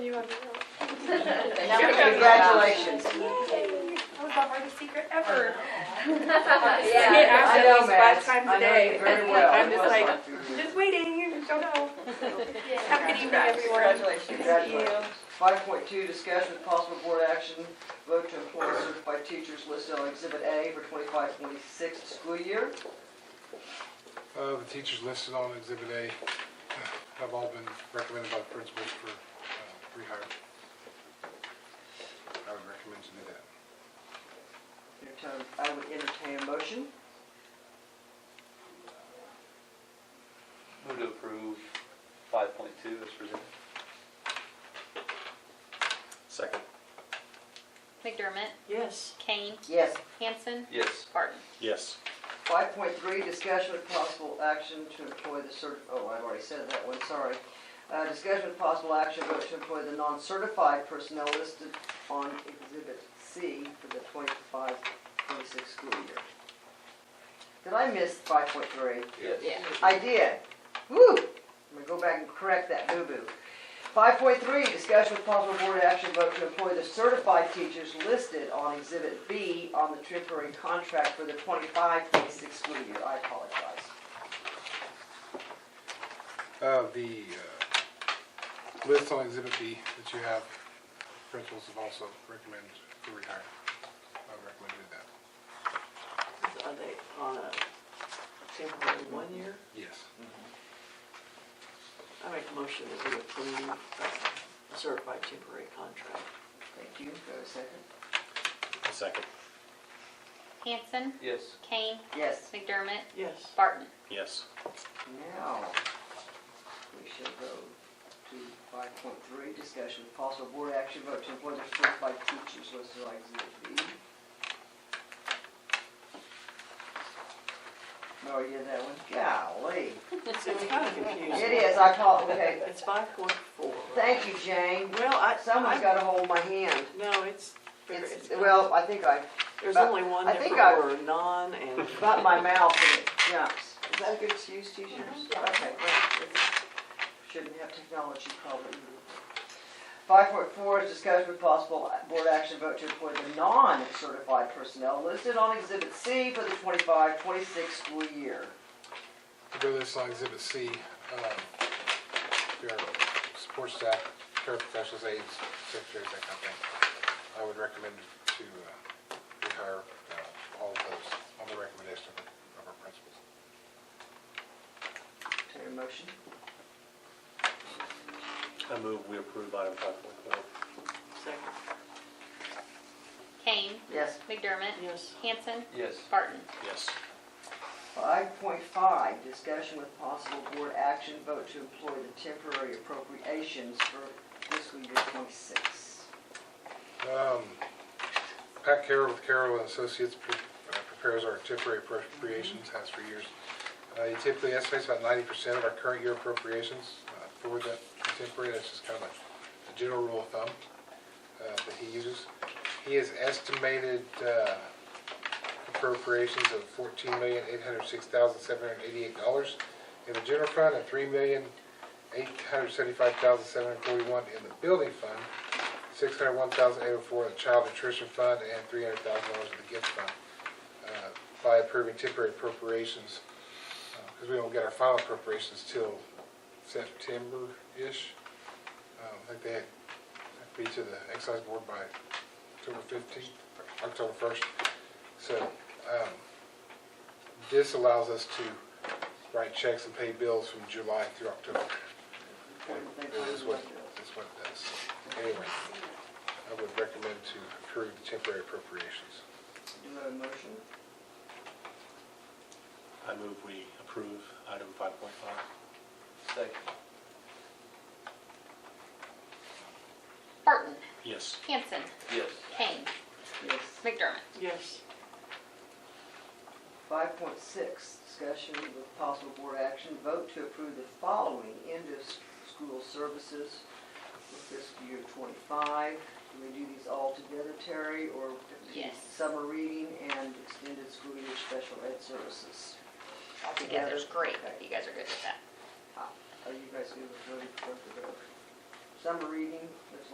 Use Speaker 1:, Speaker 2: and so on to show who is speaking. Speaker 1: Congratulations.
Speaker 2: Yay! That was my hardest secret ever.
Speaker 3: Yeah.
Speaker 2: He asked
Speaker 1: I
Speaker 2: at
Speaker 1: know,
Speaker 2: least five
Speaker 1: Max.
Speaker 2: times
Speaker 1: I
Speaker 2: a
Speaker 1: know
Speaker 2: day.
Speaker 1: you very well.
Speaker 2: I'm just like,
Speaker 1: It was
Speaker 2: just waiting, you don't know. Have a good evening,
Speaker 1: Congrats.
Speaker 2: everyone.
Speaker 1: Congratulations. Five point two, discussion with possible board action, vote to employ certified teachers listed on exhibit A for 25-26 school year.
Speaker 4: Uh, The teachers listed on Exhibit A have all been recommended by the principals for uh, rehire. I would recommend to do that.
Speaker 1: Entertain- I would entertain a motion.
Speaker 5: Move to approve five point two as presented.
Speaker 6: Second.
Speaker 3: McDermott,
Speaker 1: Yes.
Speaker 3: Kane,
Speaker 1: Yes.
Speaker 3: Hanson,
Speaker 5: Yes.
Speaker 3: Barton.
Speaker 6: Yes.
Speaker 1: Five point three, discussion with possible action to employ the cert, oh, I've already said that one, sorry. Uh, discussion with possible action vote to employ the non-certified personnel listed on exhibit C for the 25-26 school year. Did I miss five point three?
Speaker 3: Yeah.
Speaker 1: I did. Woo! I'm gonna go back and correct that boo-boo. Five point three, discussion with possible board action vote to employ the certified teachers listed on exhibit B on the temporary contract for the 25-26 school year. I apologize.
Speaker 4: Uh, The uh, list on Exhibit B that you have, principals have also recommended for rehire. I would recommend to do that.
Speaker 7: Are they on a temporary one year?
Speaker 4: Yes.
Speaker 7: I make a motion that we approve uh, a certified temporary contract.
Speaker 1: Thank you. Go to second.
Speaker 6: Second.
Speaker 3: Hanson,
Speaker 5: Yes.
Speaker 3: Kane,
Speaker 1: Yes.
Speaker 3: McDermott,
Speaker 7: Yes.
Speaker 3: Barton.
Speaker 6: Yes.
Speaker 1: Now, we should go to five point three, discussion with possible board action vote to employ the certified teachers listed on exhibit B. Oh, you did that one? Golly.
Speaker 7: It's kind of confusing.
Speaker 1: It is, I call, okay.
Speaker 7: It's five point four.
Speaker 1: Thank you, Jane.
Speaker 7: Well, I,
Speaker 1: Someone's
Speaker 7: I,
Speaker 1: got a hold of my hand.
Speaker 7: no, it's,
Speaker 1: It's,
Speaker 7: it's,
Speaker 1: well, I think I
Speaker 7: there's
Speaker 1: but
Speaker 7: only one
Speaker 1: I think
Speaker 7: different
Speaker 1: I-
Speaker 7: word, non and.
Speaker 1: butt my mouth and it jumps. Is that a good excuse, teachers? Okay, great. Shouldn't have technology problem. Five point four is discussion with possible board action vote to employ the non-certified personnel listed on exhibit C for the 25-26 school year.
Speaker 4: To go this on Exhibit C, um, there are support staff, paraprofessionals, aides, secretaries, that kind of thing. I would recommend to uh, rehire uh, all of those on the recommendation of our- of our principals.
Speaker 1: Take a motion.
Speaker 6: I move we approve item five point four.
Speaker 7: Second,
Speaker 3: Kane,
Speaker 1: Yes.
Speaker 3: McDermott,
Speaker 7: yes.
Speaker 3: Hanson,
Speaker 5: Yes.
Speaker 3: Barton.
Speaker 6: Yes.
Speaker 1: Five point five, discussion with possible board action vote to employ the temporary appropriations for fiscal year twenty-six.
Speaker 4: Um, Pat Carroll with Carroll and Associates pre- uh, prepares our temporary appropriations, has for years. Uh, He typically estimates about ninety percent of our current year appropriations uh, for that temporary, that's just kind of a general rule of thumb uh, that he uses. He has estimated uh, appropriations of fourteen million, eight hundred six thousand, seven hundred eighty-eight dollars in the general fund and three million, eight hundred seventy-five thousand, seven hundred forty-one in the building fund six hundred one thousand eight hundred four in the Child Nutrition Fund and three hundred thousand dollars in the gift fund uh, by approving temporary appropriations, because we don't get our final appropriations till September-ish. Um, I think they have to be to the excise board by October fifteenth, October first. So um, this allows us to write checks and pay bills from July through October.
Speaker 1: Important thing for
Speaker 4: This is what,
Speaker 1: us to do.
Speaker 4: this is what it does. Anyway, I would recommend to approve the temporary appropriations.
Speaker 1: Do we have a motion?
Speaker 6: I move we approve item five point five.
Speaker 5: Second.
Speaker 3: Barton,
Speaker 6: Yes.
Speaker 3: Hanson,
Speaker 5: Yes.
Speaker 3: Kane,
Speaker 1: Yes.
Speaker 3: McDermott.
Speaker 7: Yes,
Speaker 1: Five point six, discussion with possible board action, vote to approve the following end of s- school services for fiscal year twenty-five. Do we do these all together, Terry, or?
Speaker 3: Yes.
Speaker 1: Summer reading and extended school year special ed services.
Speaker 3: All together is great. You guys are good with that.
Speaker 1: Are you guys good with voting for both of those? Summer reading, let's